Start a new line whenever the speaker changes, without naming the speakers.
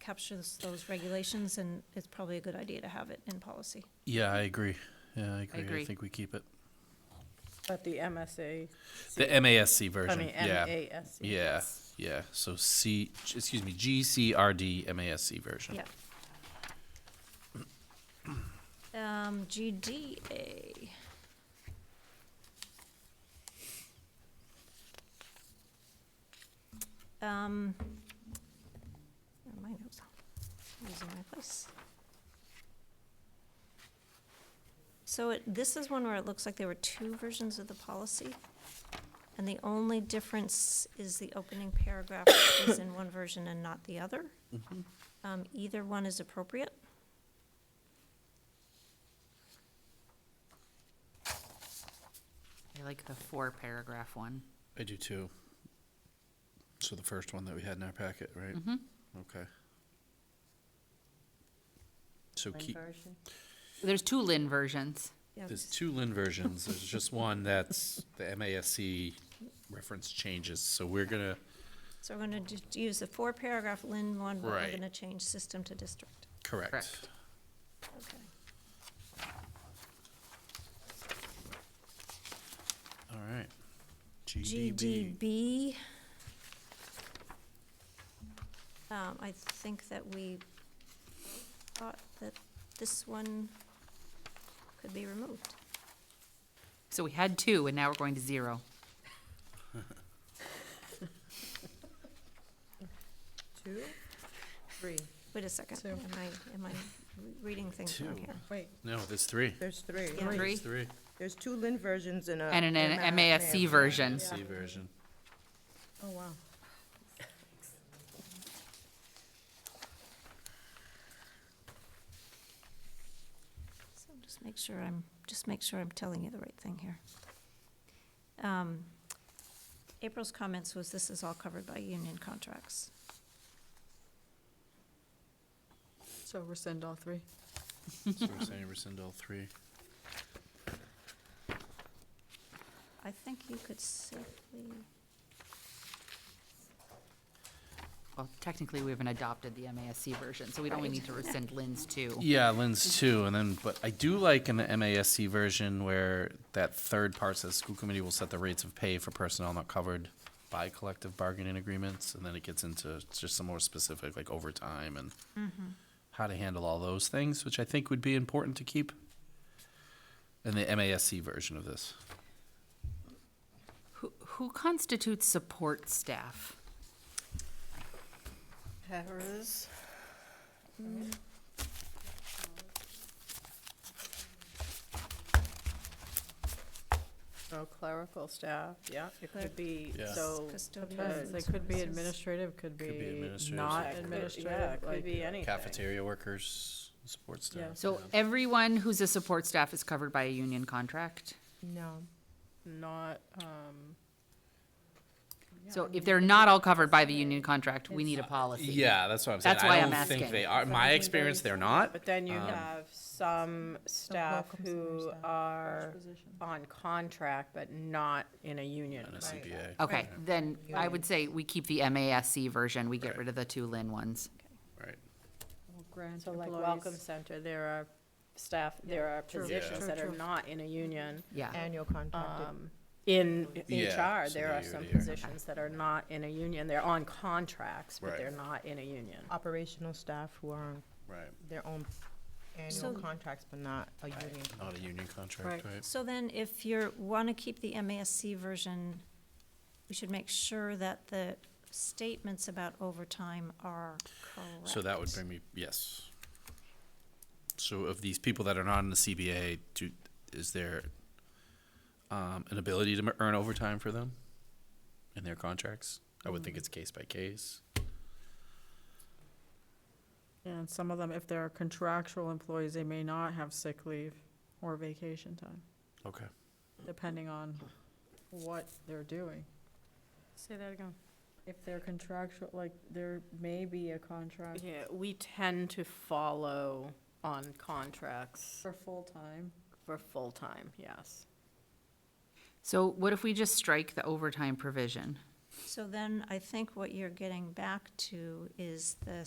captures those regulations, and it's probably a good idea to have it in policy.
Yeah, I agree. Yeah, I agree. I,
agree.
think we keep it.
But the MSA.
The MASC
I
version.
mean,
yeah.
MASC.
Yeah. Yeah. So C, excuse me, GCRD MASC version.
Yeah. Um, GDA. Um, oh, my notes, losing my place. So it, this is one where it looks like there were two versions of the policy. And the only difference is the opening paragraph is in one version and not the other. Um, either one is appropriate.
I like the four paragraph one.
I do too. So the first one that we had in our packet, right?
Mhm.
Okay. So keep,
There's two Lin versions.
Yeah,
there's two Lin versions. There's just one that's the MASC reference changes. So we're gonna,
So we're gonna just use the four paragraph Lynn one, but we're
Right.
gonna change system to district.
correct.
Correct.
Okay.
All right. GDB.
GDB. Um, I think that we thought that this one could be removed.
So we had two, and now we're going to zero.
Two, three.
Wait a second,
So-
am I, am I re- reading things wrong
Two.
here?
Wait,
No, there's three.
there's three.
Yeah.
Three.
There's three.
There's two Lin versions and a.
And an an MASC version.
C version.
Oh, wow.
So just make sure I'm, just make sure I'm telling you the right thing here. Um, April's comments was this is all covered by union contracts.
So rescind all three.
So we're saying rescind all three.
I think you could safely,
Well, technically, we haven't adopted the MASC version, so we'd only need to rescind Lin's two.
Yeah, Lynn's too, and then, but I do like in the MASC version where that third part says, school committee will set the rates of pay for personnel not covered by collective bargaining agreements, and then it gets into just some more specific, like overtime and how to handle all those things, which I think would be important to keep in the MASC version of this.
Who who constitutes support staff?
Paras. Oh, clerical staff, yeah, it
Cleric-
could be,
Yeah.
so.
Custodial
because-
Because
It
That's
could
what it
be
says.
administrative, could
be
be
administrative.
not
Yeah, it
could- Yeah,
administrative,
it could
like,
be anything.
Cafeteria workers, support
Yeah.
staff.
So everyone who's a support staff is covered by a union contract?
No, not, um. yeah, I
So
mean,
if they're not all covered by the union contract, we need a policy.
Yeah, that's what I'm saying.
That's
I
why I'm
don't think
asking.
they are, my experience, they're not.
But then you
Um,
have some staff
welcome center
who
staff.
are on contract but not in a union.
And a
Right.
CBA.
Okay, then I would say we keep the MASC version, we get rid of the two Lin ones.
Right.
grant
So like Welcome Center, there are staff, there are
true,
positions
true,
that are
true.
not in a union.
Yeah,
Annual contracted.
Um, In
Yeah,
HR,
so
there are
they
some
already are.
positions that are not in a union, they're on contracts, but
Right.
they're not in a union.
operational staff who are on
Right.
their own
So-
annual contracts, but not a union.
Not a union contract,
Right.
right?
So then if you're, wanna keep the MASC version, we should make sure that the statements about overtime are correct.
So that would bring me, yes. So of these people that are not in the CBA, do, is there, um, an ability to m- earn overtime for them in their contracts? I would think it's case by case.
And some of them, if they're contractual employees, they may not have sick leave or vacation time,
Okay.
depending on what they're doing.
Say that again.
If they're contractual, like, there may be a contract
Yeah, we tend to follow on contracts
for full-time.
for full-time, yes.
so what if we just strike the overtime provision?
So then I think what you're getting back to is the